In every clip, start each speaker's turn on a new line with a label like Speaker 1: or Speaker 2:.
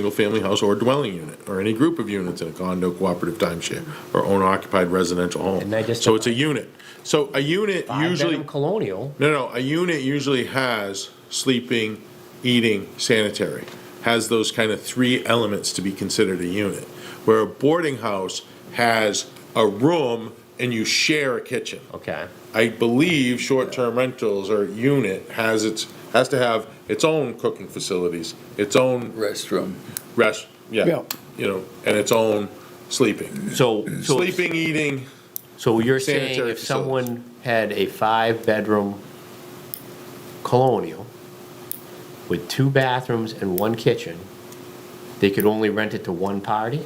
Speaker 1: single-family house or dwelling unit, or any group of units in a condo, cooperative timeshare, or owner-occupied residential home.
Speaker 2: And I just-
Speaker 1: So it's a unit. So a unit usually,
Speaker 2: Benham Colonial,
Speaker 1: no, no, a unit usually has sleeping, eating, sanitary, has those kind of three elements to be considered a unit. Where a boarding house has a room and you share a kitchen.
Speaker 2: okay.
Speaker 1: I believe short-term rentals or unit has its, has to have its own cooking facilities, its own
Speaker 3: restroom.
Speaker 1: rest,
Speaker 4: Yeah.
Speaker 1: yeah, you know, and its own sleeping.
Speaker 2: So, so, it's-
Speaker 1: Sleeping, eating,
Speaker 2: so you're saying
Speaker 1: sanitary
Speaker 2: if
Speaker 1: facilities.
Speaker 2: someone had a five-bedroom colonial with two bathrooms and one kitchen, they could only rent it to one party?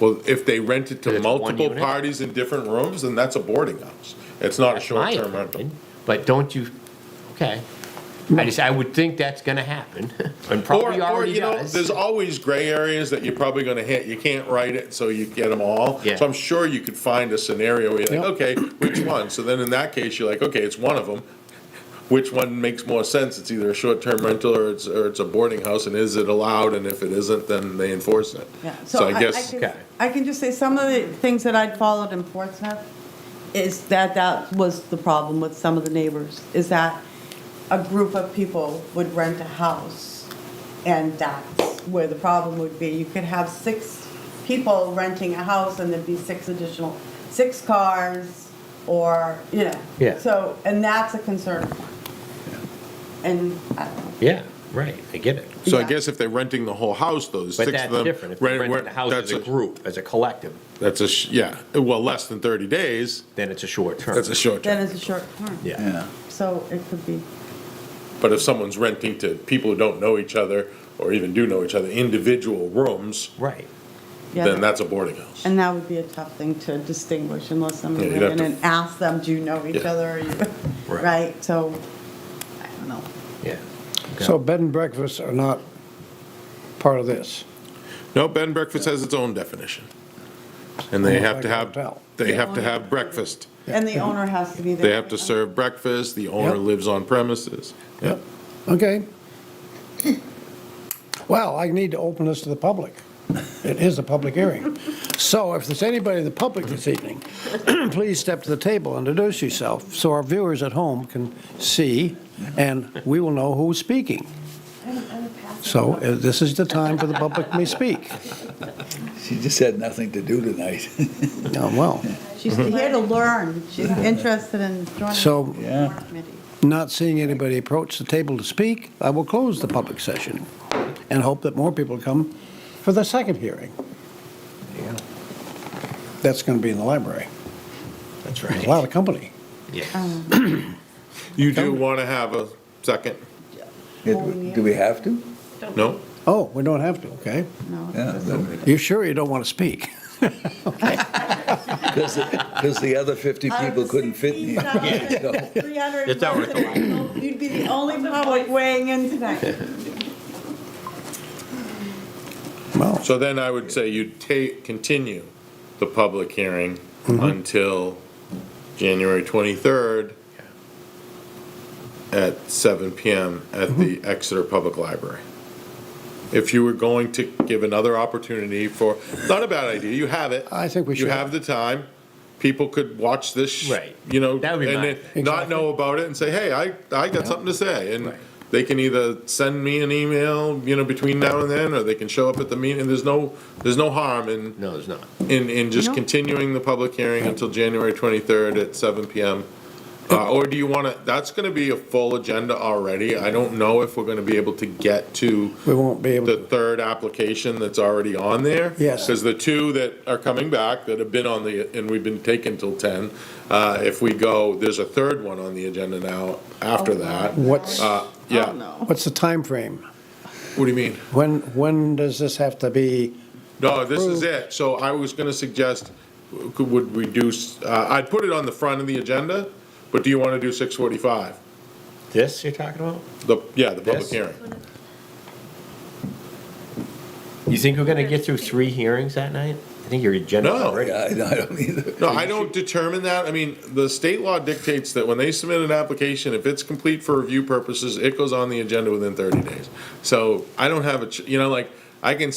Speaker 1: well, if they rent it
Speaker 2: But
Speaker 1: to
Speaker 2: it's one
Speaker 1: multiple
Speaker 2: unit?
Speaker 1: parties in different rooms, then that's a boarding house. It's not a
Speaker 2: That's my
Speaker 1: short-term rental.
Speaker 2: opinion, But don't you, okay. I just, I would think that's gonna happen, and
Speaker 1: Or,
Speaker 2: probably
Speaker 1: or,
Speaker 2: already
Speaker 1: you know,
Speaker 2: does.
Speaker 1: there's always gray areas that you're probably gonna hit, you can't write it, so you get them all.
Speaker 2: Yeah.
Speaker 1: So I'm sure you could find a scenario where you're like, okay, which one? So then in that case, you're like, okay, it's one of them. Which one makes more sense? It's either a short-term rental or it's, or it's a boarding house, and is it allowed? And if it isn't, then they enforce it.
Speaker 5: Yeah,
Speaker 1: So I
Speaker 5: I
Speaker 1: guess,
Speaker 5: can-
Speaker 2: Okay.
Speaker 5: I can just say, some of the things that I'd followed in Portsmouth is that that was the problem with some of the neighbors, is that a group of people would rent a house, and that's where the problem would be. You could have six people renting a house, and there'd be six additional, six cars, or, you know.
Speaker 2: Yeah.
Speaker 5: So, and that's a concern. And, uh, I don't know.
Speaker 2: Yeah, right, I get it.
Speaker 1: so I
Speaker 5: yeah.
Speaker 1: guess if they're renting the whole house, though, six of
Speaker 2: But
Speaker 1: them.
Speaker 2: that's different, if
Speaker 1: rent-
Speaker 2: you rent
Speaker 1: rent-
Speaker 2: the house
Speaker 1: that's
Speaker 2: as a group, as a collective,
Speaker 1: That's a, sh- yeah, well, less than 30 days,
Speaker 2: then it's a short term.
Speaker 1: that's a short term.
Speaker 5: then it's a short term.
Speaker 2: Yeah,
Speaker 3: Yeah.
Speaker 5: So it could be.
Speaker 1: But if someone's renting to people who don't know each other, or even do know each other, individual rooms,
Speaker 2: right.
Speaker 5: yeah,
Speaker 1: then
Speaker 5: that-
Speaker 1: that's a boarding house.
Speaker 5: And that would be a tough thing to distinguish unless somebody
Speaker 1: Yeah, you'd
Speaker 5: went in
Speaker 1: have
Speaker 5: and asked them, do you know each
Speaker 1: Yeah.
Speaker 5: other? Are you-
Speaker 2: Right.
Speaker 5: Right, so, I don't know.
Speaker 2: Yeah.
Speaker 4: So bed and breakfasts are not part of this.
Speaker 1: No, bed and breakfast has its own definition. And they
Speaker 4: Almost
Speaker 1: have to
Speaker 4: like a
Speaker 1: have,
Speaker 4: hotel.
Speaker 1: they have to have breakfast.
Speaker 5: And the owner has to be there.
Speaker 1: They have to serve breakfast, the owner
Speaker 4: Yep.
Speaker 1: lives on premises. Yeah.
Speaker 4: Okay. Well, I need to open this to the public. It is a public hearing. So if there's anybody in the public this evening, please step to the table and introduce yourself so our viewers at home can see and we will know who's speaking. So uh, this is the time for the public to speak.
Speaker 3: She just had nothing to do tonight.
Speaker 4: Oh, well,
Speaker 5: She's
Speaker 3: Mm-hmm.
Speaker 5: here to learn. She's interested in joining.
Speaker 4: So-
Speaker 5: the
Speaker 3: Yeah.
Speaker 5: committee.
Speaker 4: not seeing anybody approach the table to speak, I will close the public session and hope that more people come for the second hearing. That's going to be in the library.
Speaker 2: That's
Speaker 4: A lot of company.
Speaker 2: Yeah.
Speaker 1: You do want to have a second?
Speaker 3: Do we have to?
Speaker 1: No?
Speaker 4: Oh, we don't have to, okay?
Speaker 5: No, it
Speaker 3: Yeah.
Speaker 5: doesn't.
Speaker 4: You sure you don't want to speak?
Speaker 3: Because the other 50
Speaker 5: Out of
Speaker 3: people
Speaker 5: the
Speaker 3: couldn't fit in here.
Speaker 5: 16,000, 300
Speaker 2: It's all right.
Speaker 5: people, You'd be the only public weighing in tonight.
Speaker 4: Well,
Speaker 1: So then I would say you take, continue the public hearing until January 23rd at seven PM at the Exeter Public Library. If you were going to give another opportunity for, not a bad idea, you have it.
Speaker 4: I think we should.
Speaker 1: You have the time. People could watch this, sh-
Speaker 2: Right.
Speaker 1: you know,
Speaker 2: That
Speaker 1: and
Speaker 2: would be mine.
Speaker 1: then not know about it and say, hey, I, I got something to say. And
Speaker 2: Right.
Speaker 1: they can either send me an email, you know, between now and then, or they can show up at the meeting. There's no, there's no harm in,
Speaker 2: No, there's not.
Speaker 1: in, in just
Speaker 5: No.
Speaker 1: continuing the public hearing until January 23rd at 7 PM. Uh, Or do you want to, that's going to be a full agenda already. I don't know if we're going to be able to get to
Speaker 4: we won't be able
Speaker 1: the
Speaker 4: to.
Speaker 1: third application that's already on there.
Speaker 4: Yes.
Speaker 1: Because the two that are coming back that have been on the, and we've been taken till 10, uh, if we go, there's a third one on the agenda now after that.
Speaker 4: What's,
Speaker 1: Uh,
Speaker 5: Oh,
Speaker 1: Yeah,
Speaker 5: no.
Speaker 4: what's the timeframe?
Speaker 1: what do you mean?
Speaker 4: When, when does this have to be?
Speaker 1: No, this is it. So I was gonna suggest, could- would reduce, uh, I'd put it on the front of the agenda, but do you wanna do six forty-five?
Speaker 2: This you're talking about?
Speaker 1: The, yeah, the public
Speaker 2: This?
Speaker 1: hearing.
Speaker 2: You think we're gonna get through three hearings that night? I think your agenda
Speaker 1: No.
Speaker 2: already.
Speaker 3: Yeah, I don't- I don't either.
Speaker 1: No, I don't determine that. I mean, the state law dictates that when they submit an application, if it's complete for review purposes, it goes on the agenda within thirty days. So I don't have a, ch- you know, like, I can